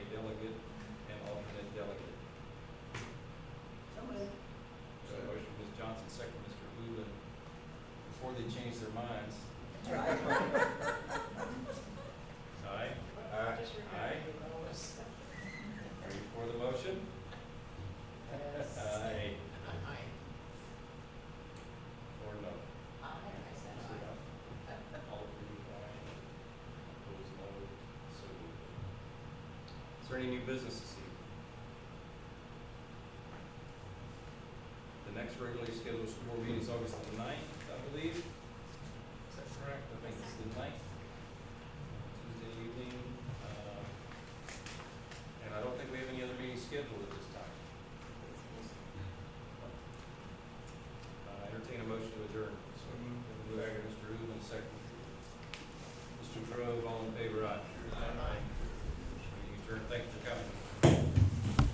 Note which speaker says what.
Speaker 1: there any new business this evening? The next regularly scheduled school board meeting is August the ninth, I believe. Is that correct? I think it's the ninth. uh,